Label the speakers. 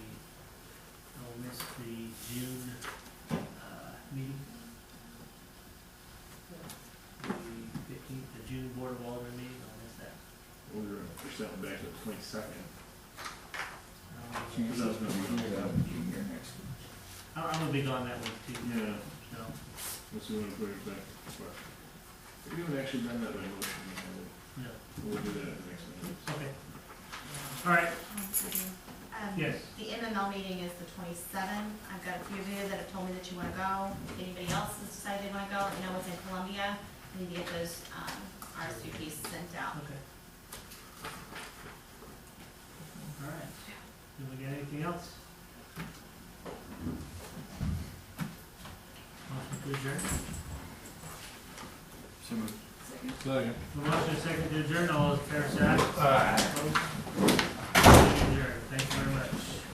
Speaker 1: June, uh, meeting. The fifteenth, the June Board of Alderman meeting, I'll miss that.
Speaker 2: We're gonna push that one back to the twenty-second.
Speaker 1: Um,
Speaker 2: Cause I was gonna be here,
Speaker 3: I'll be here next week.
Speaker 1: I'm, I'm gonna be gone that week too,
Speaker 2: yeah,
Speaker 1: so,
Speaker 2: unless you wanna put it back, but we haven't actually done that by motion, yet.
Speaker 1: no,
Speaker 2: we'll, we'll do that at the next meeting.
Speaker 1: okay. All right,
Speaker 4: Um,
Speaker 1: yes,
Speaker 4: The MML meeting is the twenty-seventh. I've got a few of you that have told me that you wanna go. If anybody else has decided they wanna go, I know it's in Columbia. We need to get those, um, RSVPs sent out.
Speaker 1: okay. All right, do we get anything else? Motion to adjourn? The motion is second to adjourn, all those in favor say aye. Opposed? Adjourn. Thank you very much.